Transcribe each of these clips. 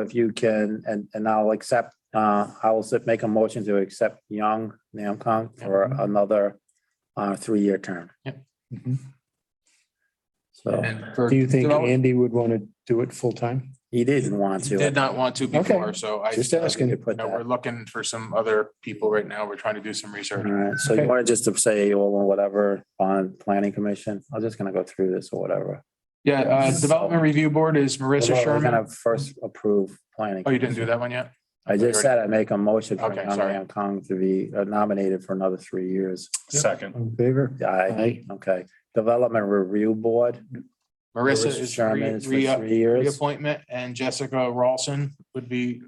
if you can, and, and I'll accept, uh, I will s- make a motion to accept Young Namcon for Mm-hmm. another, uh, three-year term. Mhm. So And for- Do you think Develop- Andy would want to do it full time? he didn't want to. Did not want to Okay. before, so I, Just you ask. Asking to put know, that. we're looking for some other people right now. We're trying to do some All research. right, so you Okay. want to just to say, well, whatever, on planning commission, I'm just gonna go through this or whatever. Yeah, uh, Development Review Board is Marissa We're Sherman. gonna first approve planning. Oh, you didn't do that one yet? I just said I make a motion for Okay, Young sorry. Nam Kong to be uh, nominated for another three years. Second. In favor? Aye, Aye. okay. Development Review Board. Marissa Marissa is Sherman is for re- re- three years. reappointment and Jessica Rawson would be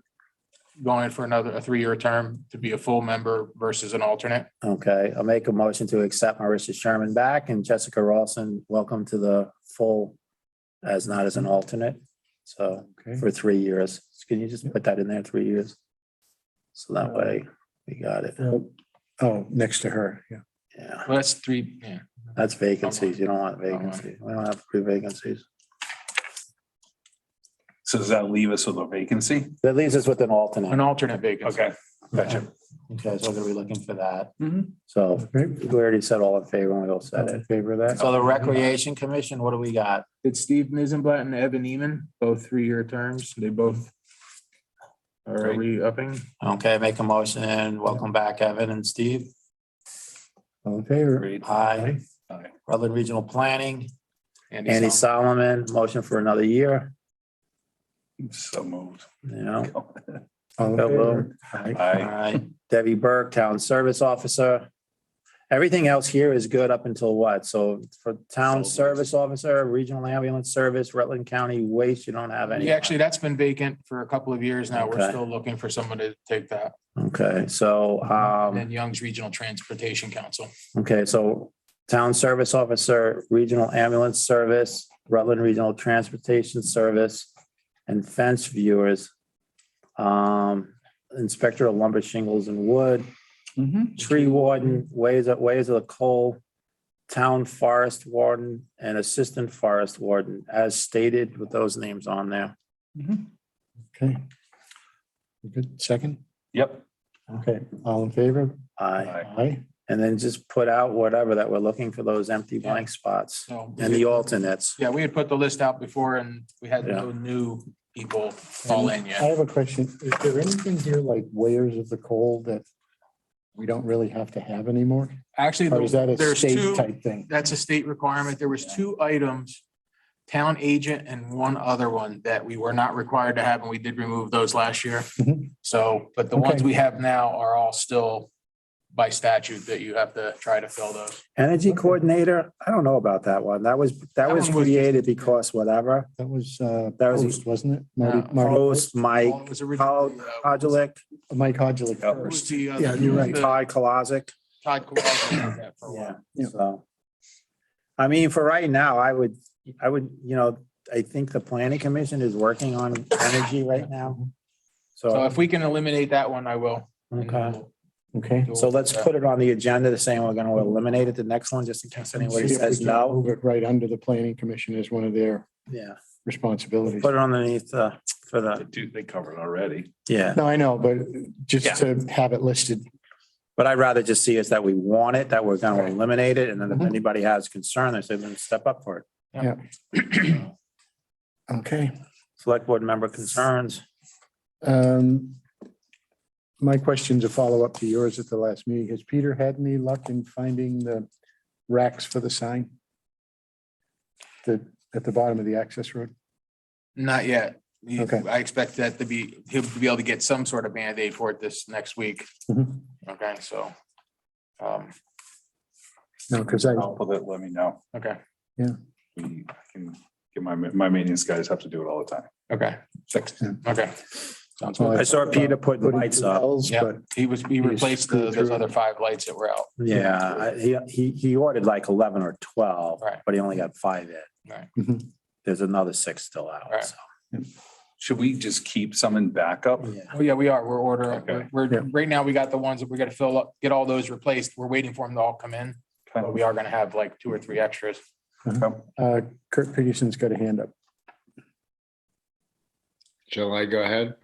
going for another, a three-year term to be a full member versus an alternate. Okay, I'll make a motion to accept Marissa Sherman back and Jessica Rawson, welcome to the full as not as an alternate. So Okay. for three years. Can you just put that in there, three years? So that way we got it. Oh, next to her, yeah. Yeah, Well, that's three, yeah. that's vacancies. You don't want vacancies. We don't have three vacancies. So does that leave us with a vacancy? That leaves us with an An alternate. alternate vacancy. Okay, gotcha. Okay, so we're looking for that. Mhm. So Okay. we already said all in favor and we all said All in it. Favor of that? So the Recreation Commission, what do we got? It's Steve Nizenblatt and Evan Eman, both three-year terms. They both are Great. re-upping. Okay, make a motion and welcome back Evan and Steve. All in favor? Great. Aye. Aye. Rutland Regional Planning, Andy Andy Sol- Solomon, motion for another year, So moved. you know. All in Hello. favor? Aye. All Aye. right, Debbie Burke, Town Service Officer. Everything else here is good up until what? So for Town Solid waste. Service Officer, Regional Ambulance Service, Rutland County Waste, you don't have any. Yeah, actually, that's been vacant for a couple of years now. We're Okay. still looking for someone to take that. Okay, so, And then um, Young's Regional Transportation Council. okay, so Town Service Officer, Regional Ambulance Service, Rutland Regional Transportation Service, and fence viewers. Um, Inspector of Lumber Shingles and Wood, tree warden, ways of, ways of the coal, town forest warden and assistant forest warden, as stated with those names on there. Okay. You Good, second? Yep. Okay, all in favor? Aye. Aye. Aye. Uh, And then just put out whatever that we're looking for those empty blank spots So. and the alternates. Yeah, we had put the list out before and we had Yeah. no new people fall in I yet. have a question. Is there anything here like wares of the coal that we don't really have to have anymore? Actually, Or is that a there's two, state type thing? that's a state requirement. There was two items, town agent and one other one that we were not required to have and we did remove those last year. Mhm. So, but the Okay. ones we have now are all still by statute that you have to try to fill those. Energy coordinator, I don't know about that one. That was, that That was one was- created because whatever. That was, uh, That was- Post, wasn't it? Marty, No. Marty, Post, Mike, Well, it was Paul originally, uh, Kodulik, Mike Hodgley Yeah. it was first. the, uh, Yeah, you're right. the Todd Kolosik. Todd Kowalski did that for a while. Yeah, Yeah. so. I mean, for right now, I would, I would, you know, I think the planning commission is working on energy right now. So So, if we can eliminate that one, I will. and okay, we'll Okay. do so it. let's put it on the agenda, the same, we're gonna eliminate it the next one, just in case anybody See if we says can no. Move it right under the planning commission as one of their Yeah, responsibilities. put it underneath, uh, for They the, do- they covered already. yeah, No, I know, but just to have it listed. but I'd rather just see is that we want it, that we're gonna Right. Mm-hmm. eliminate it, and then if Mhm. anybody has concern, they say, then step up for it. Okay. Select board member concerns, Um, my question's a follow-up to yours at the last meeting. Has Peter had any luck in finding the racks for the sign? The, at the bottom of the access road? Not yet. You- Okay. I expect that to be, he'll be able to get some sort of Band-Aid for it this next week. Mhm. Mm-hmm. Okay, so. um, No, because I, I'll put it, let me know. Okay, We I can get my, my maintenance guys have to do it all the time. okay, six, okay. Sounds Well, good. I saw Peter putting lights up. Yeah. He was, he He's replaced the- those screwed. other five lights that were out. Yeah, I- he, he, he ordered like eleven or twelve, Right. but he only got five in. Right. Mhm. There's another six still out, Right. so. Should we just keep some in backup? yeah. Oh, yeah, we are. We're ordering, Okay. we're, Yeah. right now, we got the ones that we gotta fill up, get all those replaced. We're waiting for them to all come in, but Okay. we are gonna have like two or three extras. Uh, Kurt Peterson's got a hand up. Shall I go ahead?